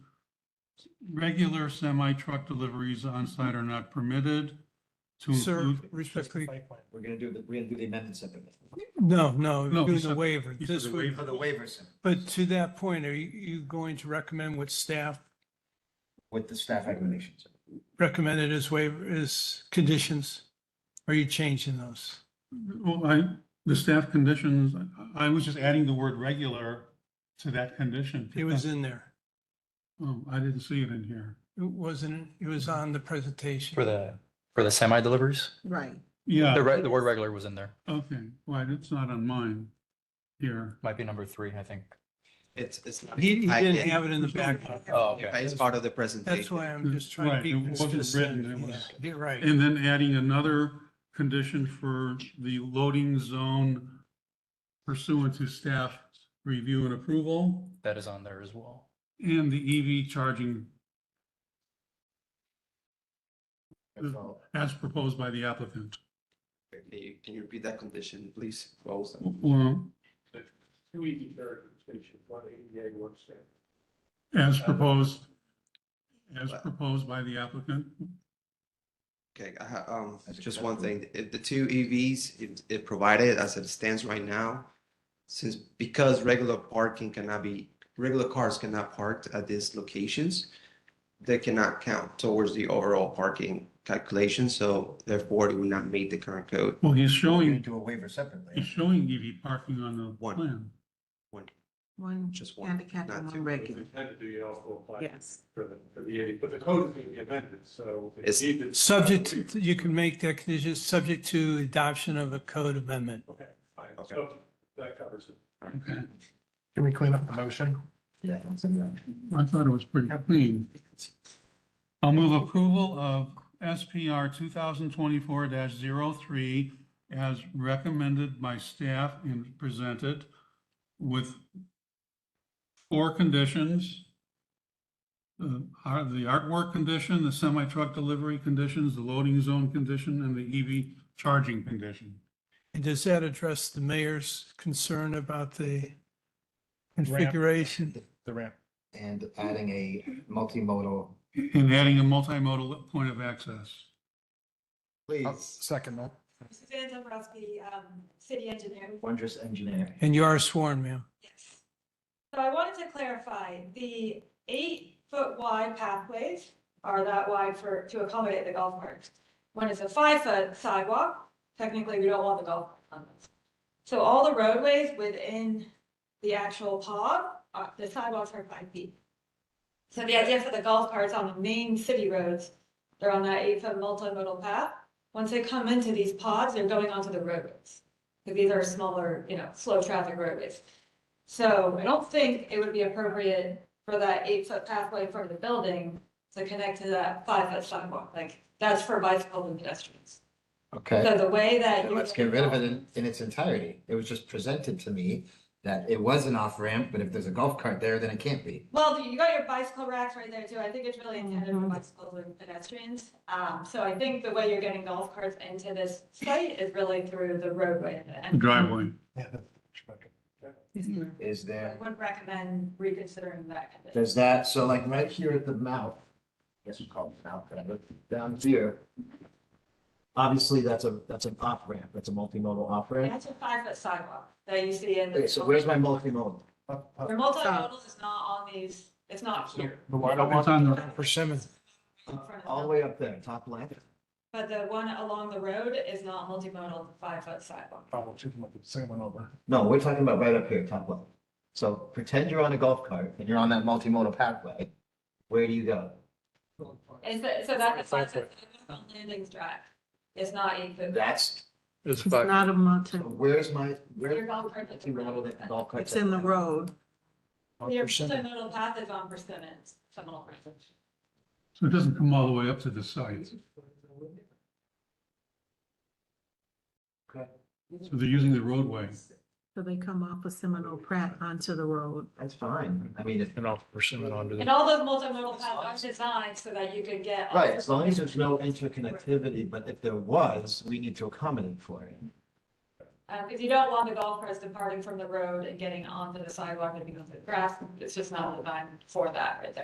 regular semi-truck deliveries on site are not permitted to Sir, include. respectfully, We're gonna do, the- we're gonna do the amendment separately. no, no, No, you're he doing the said- waiver. he said This the would, waiver. For the waivers, but to that point, are you, you going to recommend what staff with the staff recommendations. recommended as waiver, as conditions? Are you changing those? Well, I, the staff conditions, I I was just adding the word regular to that condition. It was in there. Oh, I didn't see it in here. It wasn't, it was on the presentation. For the, for the semi deliveries? Right. The, Yeah, re- the word regular was in there. okay, well, it's not on mine here. Might be number three, I think. It's, it's. not- He, he I- didn't it- have it in the back. Oh, yeah, It's part of the presentation. That's why I'm just trying to Right, be it wasn't consistent. written, it Yeah, was- You're right. And then adding another condition for the loading zone pursuant to staff review and approval That is on there as well. and the EV charging as proposed by the applicant. Can you- can you repeat that condition, please? Rose? Well, Two EV charging stations, one E ADA, one standard. as proposed, as proposed by the applicant. Okay, I ha- um, That's just one acceptable. thing, if the two E EVs, it, it provided as it stands right now, since, because regular parking cannot be, regular cars cannot park at these locations, they cannot count towards the overall parking calculation, so therefore it would not meet the current code. Well, he's We're gonna showing, do a waiver he's separately. showing EV parking on the One. plan. One, One Just one, handicap not and two. one If you regular. tend to do, you also apply Yes. for the, for the ADA, but the code is going to be amended, so. if It's needed- Subject, to- you can make that condition, subject to adoption of a code amendment. Okay, fine, Okay. so that covers it. Okay, Can we clean up the motion? I thought it was pretty clean. I'll move approval of SPR two thousand twenty-four 3 as recommended by staff and presented with four conditions. The ar- the artwork condition, the semi-truck delivery conditions, the loading zone condition, and the EV charging condition. And does that address the mayor's concern about the configuration? The ramp. And adding a multimodal, And adding a multimodal point of access. I'll please, Second that. Suzanne Dombrowski, um, city engineer. wondrous engineer. And you are sworn, ma'am. Yes. So I wanted to clarify, the eight-foot wide pathways are that wide for, to accommodate the golf carts. When it's a five-foot sidewalk, technically, we don't want the golf cart on this. So all the roadways within the actual pod, uh, the sidewalks are five feet. So the idea for the golf carts on the main city roads, they're on that eight-foot multimodal path. Once they come into these pods, they're going onto the roadways. Because these are smaller, you know, slow traffic roadways. So I don't think it would be appropriate for that eight-foot pathway from the building to connect to that five-foot sidewalk, like, that's for bicycles and pedestrians. Okay, So the way that. then you- let's get rid of it in, in its entirety. It was just presented to me that it was an off-ramp, but if there's a golf cart there, then it can't be. Well, you got your bicycle racks right there too. I think it's really intended for Mhm. bicycles and pedestrians. Um, so I think the way you're getting golf carts into this site is really through the roadway. And Driveway. Is I there, would recommend reconsidering that condition. does that, so like right here at the mouth, I guess we call it the mouth, whatever, down here. Obviously, that's a, that's an off-ramp. That's a multimodal off-ramp. That's a five-foot sidewalk that you see in. the- Okay, so where's my multimodal? Up, up, Your multimodal is not on these, it's not here. But why don't It's on the- persimmon? in front of the All the building. way up there, top left. But the one along the road is not multimodal, five-foot sidewalk. Probably took them up the same one over. No, we're talking about right up here, top left. So pretend you're on a golf cart and you're on that multimodal pathway. Where do you go? Is that, so that's a five-foot sidewalk on Landings Drive. It's not eight foot. That's, It's It's not a so mountain. where's my, Your where? golf cart. If you rattle that golf cart It's in the down. road. Your multimodal path is on Persimmon, Seminole. So it doesn't come all the way up to the site. Okay, So they're using the roadway. So they come off of Seminole Pratt onto the road. That's fine. I mean, it- And off persimmon onto And all those multimodal paths are designed so that you can get. right, as long as there's no interconnectivity, but if there was, we need to accommodate for it. Uh, because you don't want the golf carts departing from the road and getting onto the sidewalk and being on the grass. It's just not designed for that right there.